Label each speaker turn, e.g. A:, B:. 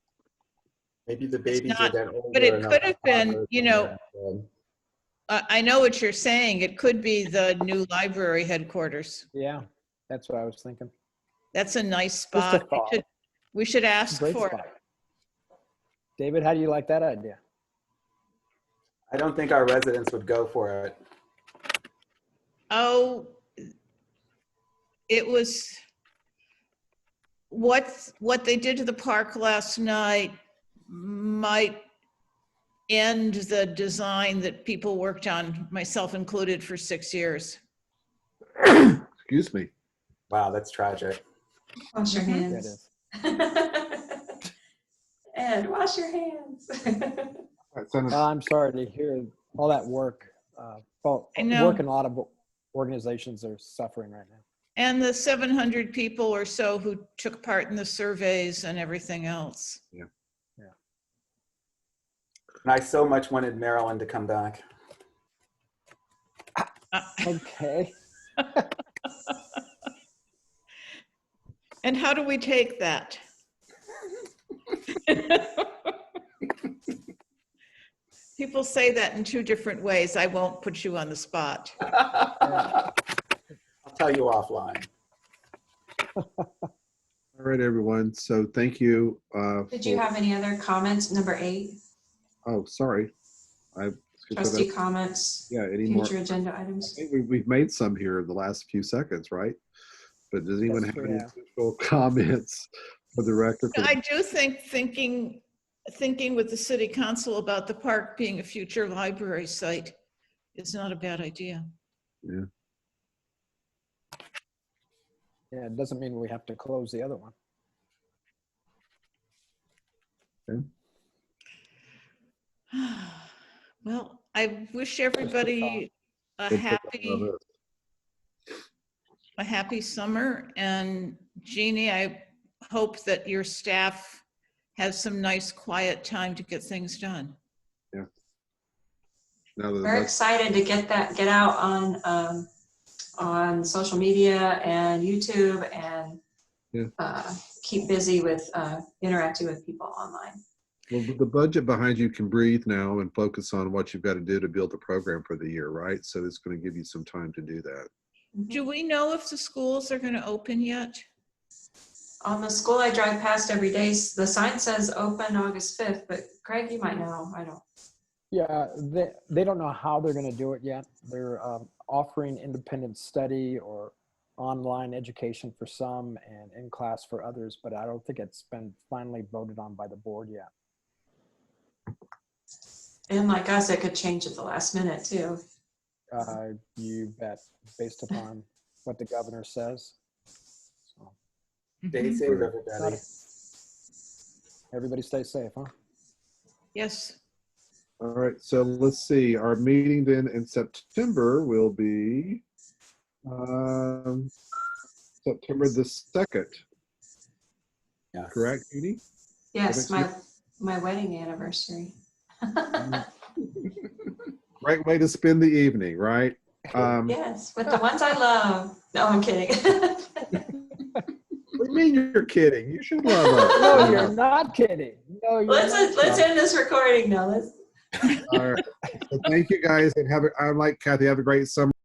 A: Maybe the babies are
B: not-
A: then older.
B: but it
A: enough
B: could
A: to
B: have been,
A: toddlers
B: you
A: and
B: know-
A: they're, um,
B: I, I know what you're saying. It could be the new library headquarters.
C: Yeah, that's what I was thinking.
B: That's a nice
C: a
B: spot. We
C: thought.
B: should- We should ask
C: Great
B: for it.
C: spot. David, how do you like that idea?
A: I don't think our residents would go for it.
B: Oh, it was, what, what they did to the park last night might end the design that people worked on, myself included, for six years.
D: Excuse me.
A: Wow, that's tragic.
E: Wash your
C: That
E: hands.
C: is.
E: And wash your hands.
D: All right, send
E: Uh,
D: us-
C: I'm sorry to hear all that work. Uh, well,
B: I know.
C: work and a lot of organizations are suffering right now.
B: And the 700 people or so who took part in the surveys and everything else.
A: And I so much wanted Marilyn to come back.
B: Uh,
C: Okay.
B: And how do we take that? People say that in two different ways. I won't put you on the spot.
A: I'll tell you offline.
D: All right, everyone. So thank you. uh,
E: Did you
D: for-
E: have any other comments? Number eight,
D: Oh, sorry. I.
E: trustee comments,
D: Yeah, any more?
E: future agenda items.
D: Hey, we- We've made some here in the last few seconds, right? But does anyone
C: That's
D: have
C: true,
D: any
C: yeah.
D: additional comments for the record?
B: I do think thinking, thinking with the city council about the park being a future library site is not a bad idea.
C: Yeah, it doesn't mean we have to close the other one.
B: Well, I wish everybody a happy a happy summer. And Jeannie, I hope that your staff has some nice quiet time to get things done.
D: Now that
E: We're
D: that's-
E: excited to get that, get out on, um, on social media and YouTube
D: Yeah.
E: and uh, keep busy with uh, interacting with people online.
D: well, with the budget behind you can breathe now and focus on what you've got to do to build the program for the year, right? So it's going to give you some time to do that.
B: Do we know if the schools are going to open yet?
E: On the school I drive past every day, s- the sign says open August 5th, but Craig, you might know, I don't.
C: Yeah, they, they don't know how they're going to do it yet. They're um, offering independent study or online education for some and in class for others, but I don't think it's been finally voted on by the board yet.
E: And like us, it could change at the last minute too.
C: Uh, you bet, based upon what the governor says. So,
A: Stay
B: Mhm.
A: safe, everybody.
C: Everybody stay safe, huh?
B: Yes.
D: All right, so let's see. Our meeting then in September will be um, September the second,
A: Yeah.
D: correct, Judy?
E: Yes,
D: Next
E: my, my wedding anniversary.
D: Great way to spend the evening, right? Um,
E: Yes, with the ones I love. No, I'm kidding.
D: What do you mean you're kidding? You should love
C: No, you're
D: us.
C: not kidding. No, you're
E: Uh-huh. Let's,
C: not
E: let's
C: kidding.
E: end this recording now. Let's.
D: All right. Well, Thank you guys and have, a- I like Kathy, have a great summer.